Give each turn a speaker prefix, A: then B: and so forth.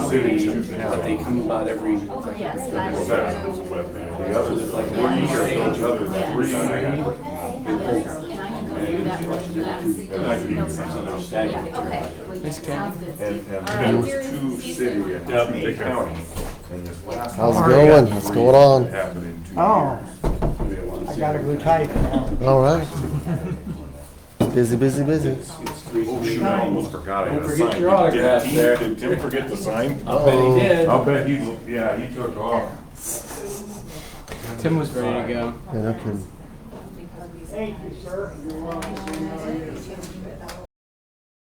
A: cities, but they come about every.
B: That is what man. The others, like, three or each other, three and a half. And I think it's something else. And, and there was two city and two county. And this last
C: How's it
B: one
C: going? What's going on?
B: Happened in two years.
D: Oh.
B: I
D: I gotta go tight now.
C: All right. Busy, busy, busy.
B: Oh, shoot, I almost forgot. I had
A: Don't
B: a
A: forget
B: sign.
A: your autograph
B: Did he-
A: there.
B: Did Tim forget the sign?
A: I bet he did.
B: I'll bet he, yeah, he took off.
A: Tim was ready to go.
C: And I can
D: Thank you, sir. You're welcome.